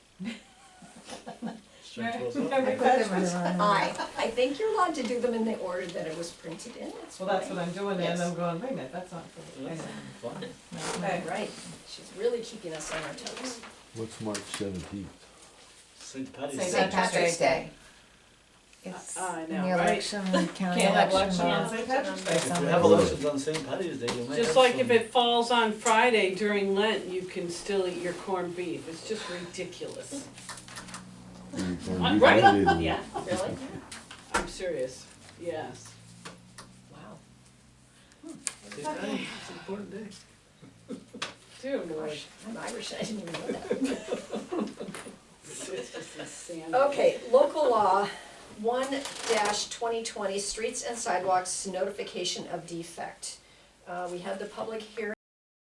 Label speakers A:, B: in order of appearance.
A: Central
B: No,
A: Zone.
B: no,
C: I
B: no.
C: put them in the wrong one.
D: I, I think you're allowed to do them in the order that it was printed in.
C: Well, that's what I'm doing,
D: Yes.
C: and I'm going, wait a minute, that's not. for-
A: That's fine.
B: Okay.
D: Right, she's really keeping us on our toes.
E: What's March seventeenth?
A: St. Patty's
B: St.
A: Day.
B: Patrick's Day.
C: It's
B: Uh, I
C: the
B: know, right?
C: election, the county
B: Can't have election
C: election.
B: on
C: laws.
B: St. Patrick's Day.
C: There's
A: If
C: some-
A: you have elections on St. Patty's Day, you may have
F: Just like if
A: some-
F: it falls on Friday during Lent, you can still eat your corned beef. It's just ridiculous. Right? Yeah,
D: Really?
F: I'm serious. Yes.
D: Wow.
A: St. Patty's, it's an important day.
F: Dear Lord.
D: Gosh, I'm Irish, I didn't even know that.
F: It's just insanity.
D: Okay, local law, one twenty twenty, streets and sidewalks notification of defect. Uh, we had the public hearing